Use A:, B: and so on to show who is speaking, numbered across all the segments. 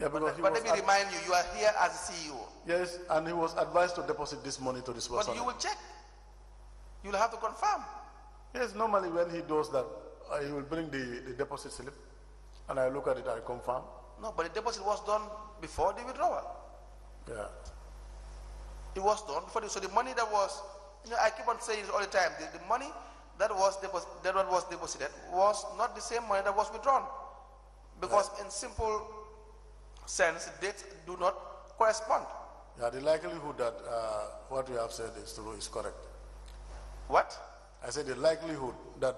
A: Yeah, because he
B: But
A: was
B: let me
A: ad-
B: remind you, you are here as CEO.
A: yes, and he was advised to deposit this money to this person.
B: But you will check. You'll have to confirm.
A: Yes, normally when he does that, uh, he will bring the, the deposit slip, and I look at it, I confirm.
B: No, but the deposit was done before the withdrawal.
A: Yeah,
B: It was done before the, so the money that was, you know, I keep on saying it all the time. The, the money that was depos- that one was deposited was not the same money that was withdrawn, because in simple sense, dates do not correspond.
A: yeah. The likelihood that uh, what you have said is true is correct.
B: What?
A: I said the likelihood that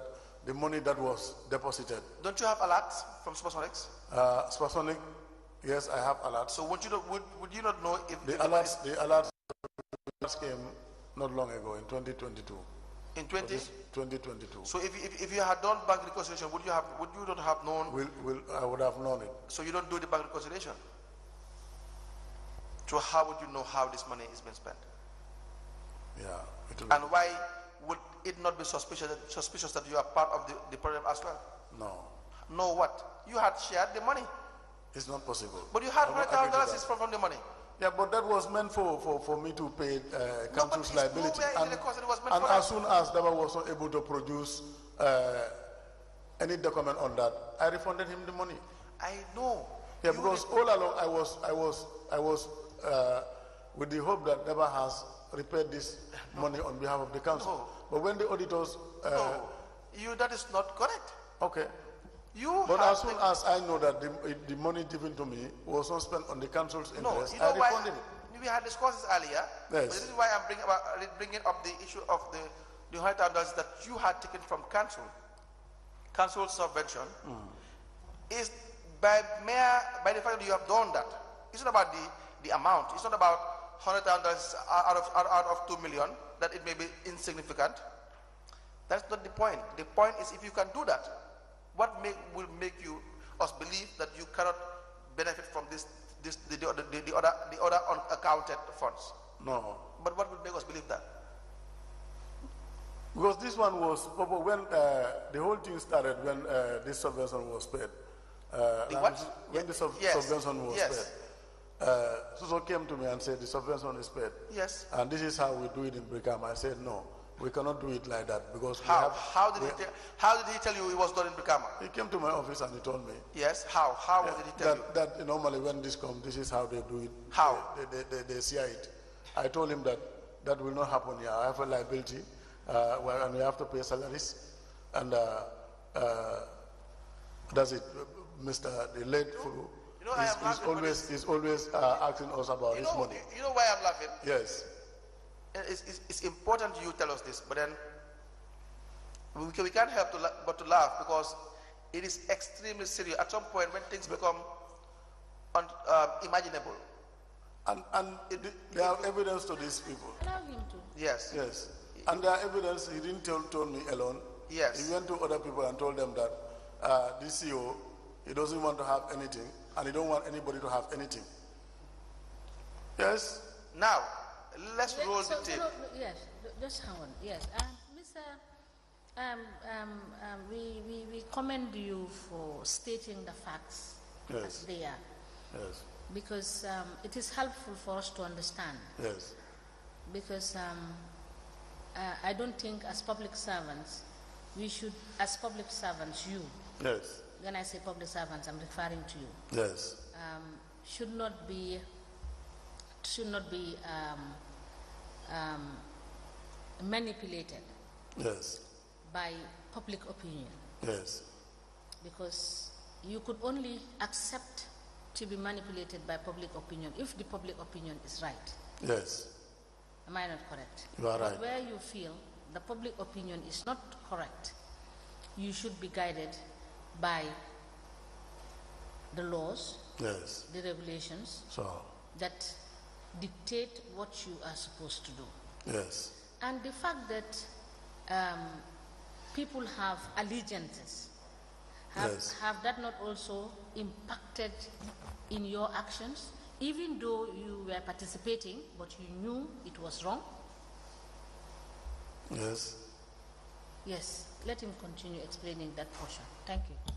A: the money that was deposited,
B: Don't you have alerts from Supersonics?
A: uh, Spasonic, yes, I have alerts.
B: So would you not, would, would you not know if
A: The
B: money-
A: alerts, the alerts came not long ago in 2022.
B: in twenty?
A: This 2022.
B: So if, you- if if you had done bank reconciliation, would you have would you not have known?
A: Will, will, I would have known it.
B: So you don't do the bank reconciliation. So how would you know how this money is being spent?
A: Yeah. It will,
B: And why would it not be suspicious that, suspicious that you are part of the, the problem as well?
A: no,
B: No, what? You had shared the money,
A: it's not possible.
B: but you had
A: I will not agree
B: hundred thousand
A: to
B: dollars
A: that.
B: is from, from the money.
A: Yeah, but that was meant for, for, for me to pay uh, council's
B: it's
A: liability.
B: nowhere in
A: And,
B: the records that it was meant
A: and
B: for
A: as soon as Daba was not able to produce uh, any document on that, I refunded him the money.
B: I know.
A: Yeah,
B: You
A: because all along I was I was I was uh, with the hope that Daba has repaid this money on behalf of the council.
B: No.
A: But when the auditors,
B: did-
A: uh,
B: no, you that is not correct.
A: okay.
B: You
A: But
B: had
A: as soon
B: the-
A: as I know that the, it- the money given to me was not spent on the council's
B: no,
A: interest,
B: you know
A: I
B: why
A: refunded it.
B: we had discussed this earlier. but
A: Yes.
B: This is why I'm bringing about bringing up the issue of the the hundred thousand dollars that you had taken from council, council subvention,
A: Mm.
B: is by mere by the fact that you have done that. It's not about the the amount. It's not about hundred thousand dollars out of out, out of two million that it may be insignificant. That's not the point. The point is if you can do that, what make, will make you us believe that you cannot benefit from this, this the, the, other- the, the other the other unaccounted funds?
A: No,
B: But what will make us believe that?
A: Because this one was but when uh, the whole thing started when uh, this subvention was paid. Uh,
B: The
A: and
B: what?
A: When the sub-
B: Yes.
A: subvention was
B: Yes.
A: paid, uh, Suso came to me and said the subvention is paid,
B: Yes.
A: and this is how we do it in Brikama. I said no, we cannot do it like that because we
B: How
A: have.
B: how did he tell, how did he tell you it was done in Brikama?
A: He came to my office and he told me
B: Yes. How how did he tell you?
A: that, that normally when this comes, this is how they do it.
B: How?
A: They, they, they, they see it. I told him that that will not happen here. I have a liability, uh, well, and we have to pay salaries. And uh, uh, that's it. Mr. The late Fulu
B: you know, I
A: is,
B: am
A: is
B: laughing, but
A: always, is always uh, asking us about
B: You
A: his
B: know eh,
A: money.
B: you know why I'm laughing.
A: Yes.
B: Uh, It's, it's, it's important you tell us this, but then we, can, we can't help to la- but to laugh because it is extremely serious. At some point, when things become un- um, imaginable,
A: And, and there are evidence to these people.
C: Allow him to.
B: yes,
A: Yes. And there are evidence, he didn't tell, told me alone.
B: Yes.
A: He went to other people and told them that uh, this CEO, he doesn't want to have anything and he don't want anybody to have anything. Yes?
B: Now, let's roll the
C: So- so
B: tape.
C: no, no, Yes, just hang on, yes. Um, Mr., um, um, um, we, we, we commend you for stating the facts
A: Yes.
C: as they are,
A: Yes.
C: because um, it is helpful for us to understand,
A: Yes.
C: because um, uh, I don't think as public servants, we should, as public servants, you,
A: Yes.
C: when I say public servants, I'm referring to you,
A: Yes.
C: um, should not be should not be um, um, manipulated
A: Yes.
C: by public opinion
A: Yes.
C: because you could only accept to be manipulated by public opinion if the public opinion is right.
A: Yes.
C: Am I not correct?
A: You are
C: But
A: right.
C: where you feel the public opinion is not correct, you should be guided by the laws,
A: Yes.
C: the regulations,
A: So,
C: that dictate what you are supposed to do.
A: yes.
C: And the fact that um, people have allegiances, have,
A: Yes.
C: have that not also impacted in your actions, even though you were participating, but you knew it was wrong?
A: Yes.
C: Yes, let him continue explaining that portion. Thank you.